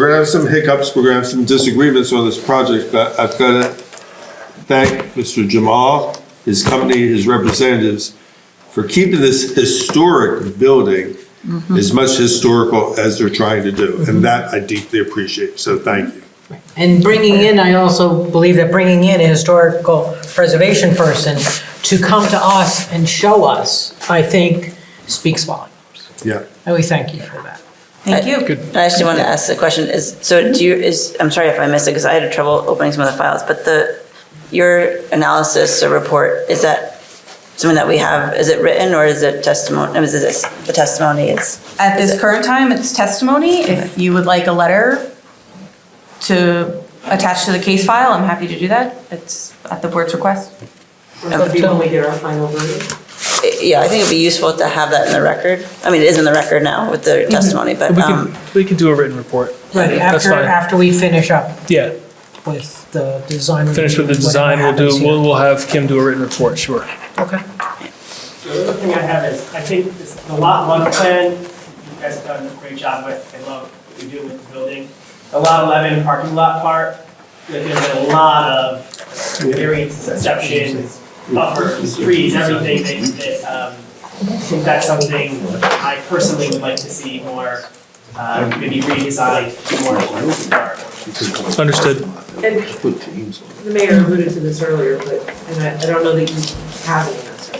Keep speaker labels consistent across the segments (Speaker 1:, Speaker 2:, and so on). Speaker 1: gonna have some hiccups, we're gonna have some disagreements on this project, but I've gotta thank Mr. Jamal, his company, his representatives, for keeping this historic building as much historical as they're trying to do, and that I deeply appreciate, so thank you.
Speaker 2: And bringing in, I also believe that bringing in a historical preservation person to come to us and show us, I think, speaks volumes.
Speaker 1: Yeah,
Speaker 2: And we thank you for that.
Speaker 3: Thank you. I actually wanted to ask the question, is, so do you, is, I'm sorry if I missed it, because I had trouble opening some of the files, but the, your analysis or report, is that something that we have, is it written, or is it testimony, is this, the testimony is?
Speaker 4: At
Speaker 3: Is
Speaker 4: this
Speaker 3: it-
Speaker 4: current time, it's testimony. If you would like a letter to attach to the case file, I'm happy to do that. It's at the board's request.
Speaker 2: That'll be when we get our final verdict.
Speaker 3: Yeah, I think it'd be useful to have that in the record. I mean, it is in the record now with the testimony, but,
Speaker 5: We
Speaker 3: um,
Speaker 5: can, we can do a written report.
Speaker 2: Right,
Speaker 5: That's
Speaker 2: after,
Speaker 5: fine.
Speaker 2: after we finish up
Speaker 5: Yeah,
Speaker 2: with the design.
Speaker 5: finish with the
Speaker 2: review,
Speaker 5: design, we'll
Speaker 2: whatever
Speaker 5: do,
Speaker 2: happens here.
Speaker 5: we'll, we'll have Kim do a written report, sure.
Speaker 2: Okay.
Speaker 6: The other thing I have is, I think this- the lot one plan, you guys have done a great job with, I love what you do with the building. The lot eleven parking lot part, there's been a lot of variances, exceptions, buffers, trees, everything that, that, um, I think that's something I personally would like to see more, uh, maybe redesigned, more, more.
Speaker 5: Understood.
Speaker 7: And the mayor alluded to this earlier, but, and I, I don't know that you have an answer.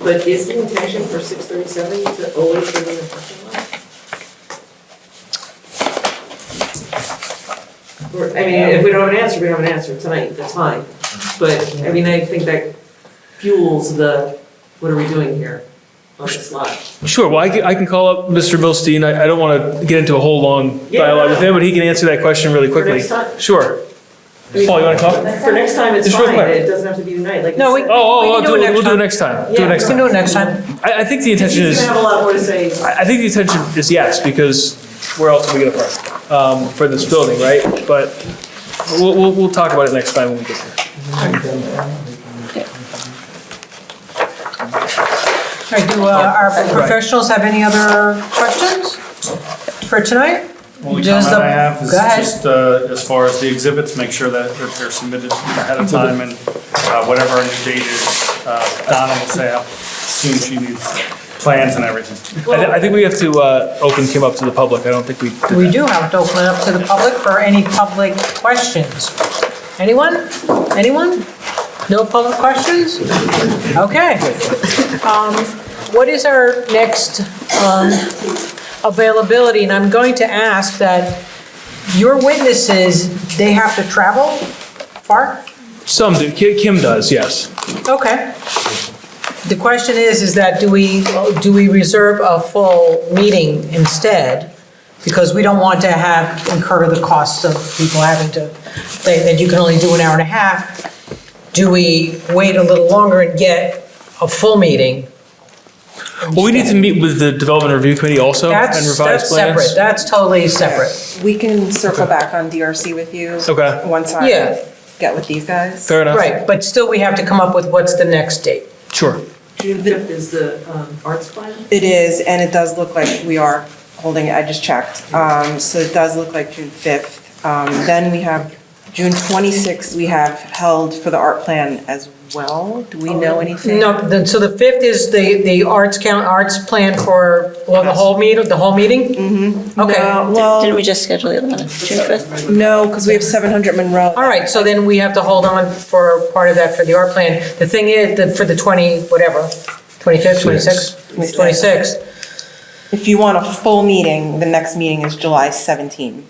Speaker 7: But is the intention for six thirty-seven to always be in the parking lot? Or, I mean, if we don't have an answer, we don't have an answer tonight, that's fine. But, I mean, I think that fuels the, what are we doing here on this lot?
Speaker 5: Sure, well, I can, I can call up Mr. Milstein, I, I don't want to get into a whole long
Speaker 7: Yeah,
Speaker 5: dialogue with
Speaker 7: no, no.
Speaker 5: him, but he can answer that question really
Speaker 7: For
Speaker 5: quickly.
Speaker 7: next time?
Speaker 5: Sure.
Speaker 7: I mean,
Speaker 5: Paul, you want to call?
Speaker 7: For next time, it's
Speaker 5: Just real
Speaker 7: fine,
Speaker 5: quick.
Speaker 7: it doesn't have to be tonight, like.
Speaker 2: No,
Speaker 7: you
Speaker 2: we-
Speaker 7: said.
Speaker 5: Oh, oh,
Speaker 2: We
Speaker 5: oh,
Speaker 2: can do
Speaker 5: do
Speaker 2: it
Speaker 5: it-
Speaker 2: next
Speaker 5: we'll do it
Speaker 2: time.
Speaker 5: next time, do
Speaker 7: Yeah,
Speaker 5: it next
Speaker 2: We can
Speaker 5: time.
Speaker 2: do it next time.
Speaker 5: I, I think the intention
Speaker 7: He's
Speaker 5: is,
Speaker 7: gonna have a lot more to say.
Speaker 5: I, I think the intention is yes, because where else are we going to park? Um, for this building, right? But we'll, we'll, we'll talk about it next time when we get there.
Speaker 2: All right, do uh, our professionals have any other questions for tonight?
Speaker 8: Only
Speaker 2: Just
Speaker 8: comment
Speaker 2: the-
Speaker 8: I have is
Speaker 2: go ahead.
Speaker 8: just, uh, as far as the exhibits, make sure that that they're submitted ahead of time and, uh, whatever our new date is, uh, Donna will say how soon she needs plans and everything.
Speaker 5: I, thi- I think we have to, uh, open Kim up to the public, I don't think we did that.
Speaker 2: We do have to open it up to the public for any public questions. Anyone? Anyone? No public questions? Okay. Um, What is our next um, availability? And I'm going to ask that your witnesses, they have to travel far?
Speaker 5: Some do, Ki- Kim does, yes.
Speaker 2: Okay. The question is, is that do we, do we reserve a full meeting instead? Because we don't want to have, incur the costs of people having to, that that you can only do an hour and a half. Do we wait a little longer and get a full meeting?
Speaker 5: Well, we need to meet with the Development Review Committee also and
Speaker 2: That's,
Speaker 5: revise
Speaker 2: that's separate,
Speaker 5: plans.
Speaker 2: that's totally separate.
Speaker 9: We can circle back on DRC with you.
Speaker 5: Okay.
Speaker 9: Once I
Speaker 2: Yeah.
Speaker 9: get with these guys.
Speaker 5: Fair enough.
Speaker 2: Right, but still we have to come up with what's the next date.
Speaker 5: Sure.
Speaker 7: June fifth is the, um, arts plan?
Speaker 9: It is, and it does look like we are holding it, I just checked. Um, So it does look like June 5th. Um, Then we have, June 26th, we have held for the art plan as well. Do we know anything?
Speaker 2: Oh, No, the- so the 5th is the, the arts count, arts plan for, well, the whole meeting, the whole meeting? Mm-hmm. Okay,
Speaker 9: No, Well,
Speaker 3: didn't we just schedule the other one, June fifth?
Speaker 9: no, because we have 700 Monroe.
Speaker 2: all right, so then we have to hold on for part of that for the art plan. The thing is, that for the 20, whatever, 25th, 26th, 26th.
Speaker 9: If you want a full meeting, the next meeting is July 17th,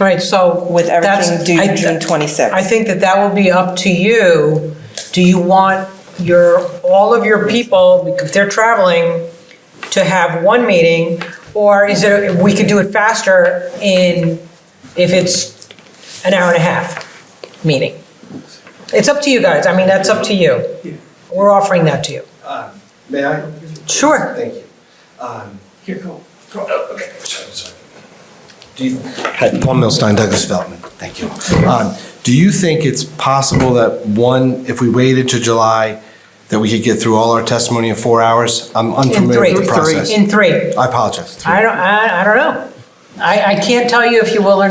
Speaker 2: All right, so.
Speaker 9: with everything
Speaker 2: that's- I-
Speaker 9: due June 26th.
Speaker 2: I think that that will be up to you. Do you want your, all of your people, if they're traveling, to have one meeting? Or is there, we could do it faster in, if it's an hour and a half meeting? It's up to you guys. I mean, that's up to you. We're offering that to you.
Speaker 10: Um, May I?
Speaker 2: Sure.
Speaker 10: Thank you. Um,
Speaker 7: Here, go.
Speaker 10: Oh, Do you, hi, Paul Milstein, Douglas Feldman, thank you. Um, Do you think it's possible that, one, if we waited to July, that we could get through all our testimony in four hours? I'm
Speaker 2: In
Speaker 10: unfamiliar
Speaker 2: three.
Speaker 10: with the process.
Speaker 2: In three.
Speaker 10: I apologize.
Speaker 2: I don't, I, I don't know. I, I can't tell you if you will or